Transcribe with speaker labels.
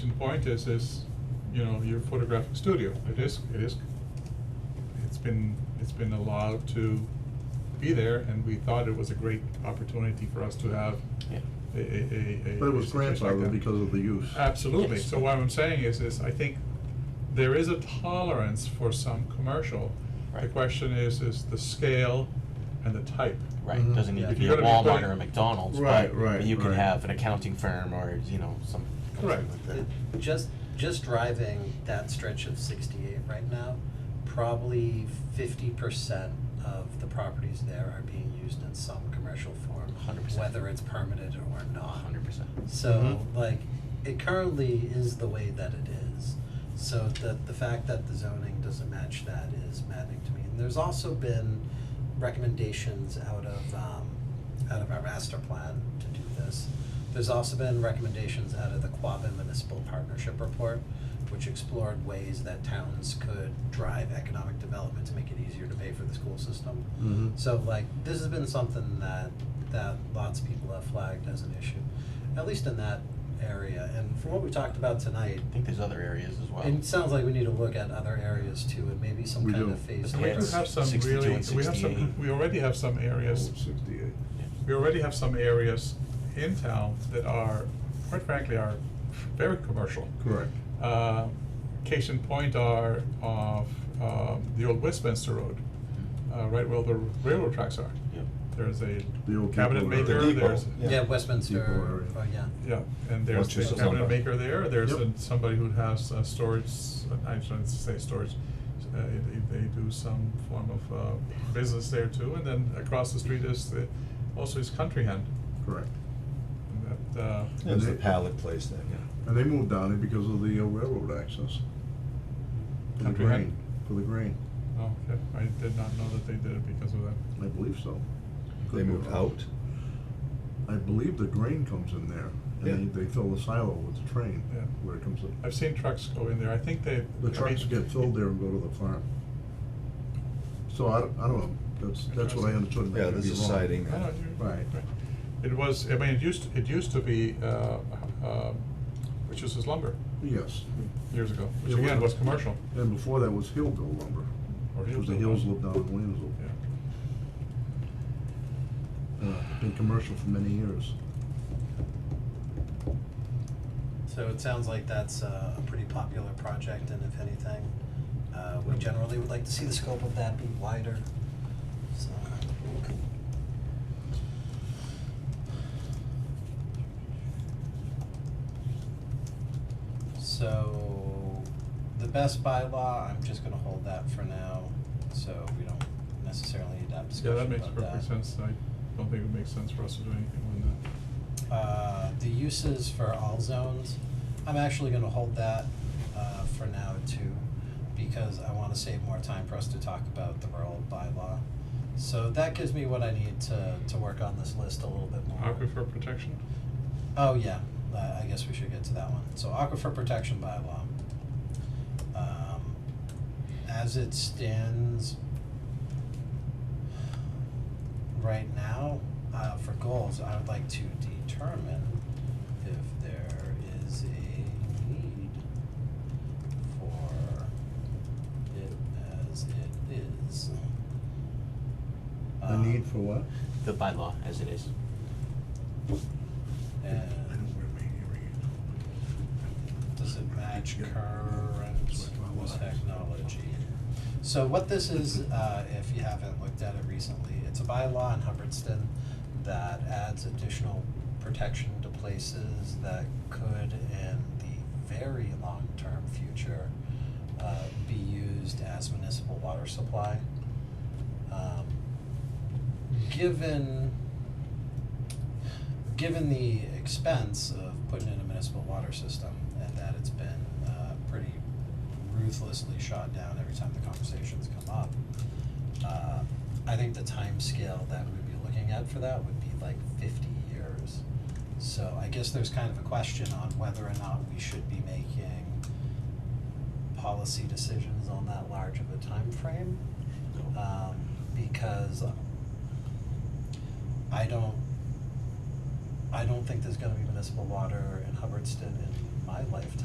Speaker 1: point is, is, you know, your photographic studio, it is, it is, it's been, it's been allowed to be there, and we thought it was a great opportunity for us to have
Speaker 2: Yeah.
Speaker 1: a, a, a, a.
Speaker 3: But it was
Speaker 1: a situation like
Speaker 3: grandfathered
Speaker 1: that.
Speaker 3: because of the use.
Speaker 1: Absolutely,
Speaker 2: Yes.
Speaker 1: so what I'm saying is, is I think there is a tolerance for some commercial. The
Speaker 2: Right.
Speaker 1: question is, is the scale and the type.
Speaker 2: Right,
Speaker 3: Mhm.
Speaker 2: doesn't need
Speaker 3: Yeah.
Speaker 2: to
Speaker 1: If
Speaker 2: be
Speaker 1: you're
Speaker 2: a
Speaker 1: gonna be
Speaker 2: Walmart
Speaker 1: putting-
Speaker 2: or a McDonald's,
Speaker 3: Right,
Speaker 2: but,
Speaker 3: right,
Speaker 2: but you can
Speaker 3: right.
Speaker 2: have an accounting firm or, you know, some,
Speaker 1: Correct.
Speaker 2: something like that.
Speaker 4: Just, just driving that stretch of sixty-eight right now, probably fifty percent of the properties there are being used in some commercial form.
Speaker 2: 100%.
Speaker 4: Whether it's permitted or not.
Speaker 2: hundred percent.
Speaker 4: So, like, it currently is the way that it is. So the, the fact that the zoning doesn't match that is maddening to me. And there's also been recommendations out of, um, out of our master plan to do this. There's also been recommendations out of the Quabbin Municipal Partnership Report, which explored ways that towns could drive economic development to make it easier to pay for the school system.
Speaker 3: Mhm.
Speaker 4: So like, this has been something that, that lots of people have flagged as an issue, at least in that area. And from what we talked about tonight,
Speaker 2: I think there's other areas as well.
Speaker 4: it sounds like we need to look at other areas too, and maybe some
Speaker 3: We
Speaker 4: kind
Speaker 3: do.
Speaker 4: of phase.
Speaker 2: But
Speaker 1: We
Speaker 2: Yeah,
Speaker 1: do
Speaker 2: it's
Speaker 1: have some
Speaker 2: 62
Speaker 1: really,
Speaker 2: and
Speaker 1: we have some,
Speaker 2: 68.
Speaker 1: we already have some areas
Speaker 3: Oh, Sixty-eight.
Speaker 2: Yeah.
Speaker 1: we already have some areas in town that are, quite frankly, are very commercial.
Speaker 3: Correct.
Speaker 1: Uh, case in point are of, um, the old Westminster Road,
Speaker 3: Mm-hmm.
Speaker 1: uh, right where the railroad tracks are.
Speaker 2: Yep.
Speaker 1: There's a
Speaker 3: The old
Speaker 1: cabinet
Speaker 3: depot area.
Speaker 1: maker,
Speaker 3: The depot,
Speaker 1: there's,
Speaker 3: yeah.
Speaker 4: Yeah, Westminster,
Speaker 3: Depot
Speaker 4: oh,
Speaker 3: area.
Speaker 4: yeah.
Speaker 1: yeah, and there's
Speaker 5: Rochester's
Speaker 1: a cabinet
Speaker 5: on that.
Speaker 1: maker there, there's
Speaker 3: Yep.
Speaker 1: a- somebody who has uh, storage, I shouldn't say storage, uh, they, they do some form of, uh, business there too, and then across the street is the, also is Country Hen,
Speaker 3: Correct.
Speaker 1: that, uh,
Speaker 5: It was
Speaker 3: And
Speaker 5: the
Speaker 3: they-
Speaker 5: pallet place then, yeah.
Speaker 3: And they moved down there because of the uh, railroad access. For the
Speaker 1: Country Hen?
Speaker 3: grain, for the grain,
Speaker 1: Oh, okay, I did not know that they did it because of that.
Speaker 3: I believe so. Could
Speaker 5: They
Speaker 3: be
Speaker 5: moved
Speaker 3: wrong.
Speaker 5: out.
Speaker 3: I believe the grain comes in there, and
Speaker 5: Yeah.
Speaker 3: they, they fill the silo with the train
Speaker 1: Yeah.
Speaker 3: where it comes in.
Speaker 1: I've seen trucks go in there, I think they.
Speaker 3: The
Speaker 1: I
Speaker 3: trucks
Speaker 1: mean-
Speaker 3: get filled there and go to the farm. So I, I don't know, that's, that's what I understood, and I
Speaker 5: Yeah,
Speaker 3: could
Speaker 5: there's
Speaker 3: be
Speaker 5: a
Speaker 3: wrong.
Speaker 5: siding.
Speaker 1: No, no, you're-
Speaker 3: Right.
Speaker 1: It was, I mean, it used, it used to be, uh, um, which is lumber,
Speaker 3: Yes,
Speaker 1: years ago, which
Speaker 3: It was-
Speaker 1: again was commercial.
Speaker 3: and before that was Hillville lumber,
Speaker 1: or
Speaker 3: because the
Speaker 1: Hillsdale
Speaker 3: Hills lived
Speaker 1: lumber.
Speaker 3: down in Williamsville.
Speaker 1: Yeah.
Speaker 3: Uh, Been commercial for many years.
Speaker 4: So it sounds like that's uh, a pretty popular project, and if anything, uh, we generally would like to see the scope of that be wider, so. So, the best bylaw, I'm just gonna hold that for now, so we don't necessarily need to have
Speaker 1: Yeah,
Speaker 4: discussion
Speaker 1: that
Speaker 4: about that.
Speaker 1: makes perfect sense, I don't think it makes sense for us to do anything with that.
Speaker 4: Uh, the uses for all zones, I'm actually gonna hold that, uh, for now too, because I wanna save more time for us to talk about the rural bylaw. So that gives me what I need to, to work on this list a little bit more.
Speaker 1: Aquifer protection,
Speaker 4: Oh, yeah, uh, I guess we should get to that one. So aquifer protection bylaw. Um, as it stands right now, uh, for goals, I would like to determine if there is a need for it as it is.
Speaker 3: The need
Speaker 4: Um,
Speaker 3: for what?
Speaker 2: The bylaw as it is.
Speaker 3: I
Speaker 4: Uh, And
Speaker 3: don't wear my hearing
Speaker 4: Does it match
Speaker 3: Yeah.
Speaker 4: current technology? So what this is, uh, if you haven't looked at it recently, it's a bylaw in Hubbardston that adds additional protection to places that could in the very long-term future, uh, be used as municipal water supply. Um, Given given the expense of putting in a municipal water system and that it's been uh, pretty ruthlessly shot down every time the conversations come up, uh, I think the time scale that we'd be looking at for that would be like 50 years. So I guess there's kind of a question on whether or not we should be making policy decisions on that large of a time frame um, because I don't, I don't think there's gonna be municipal water in Hubbardston in my lifetime.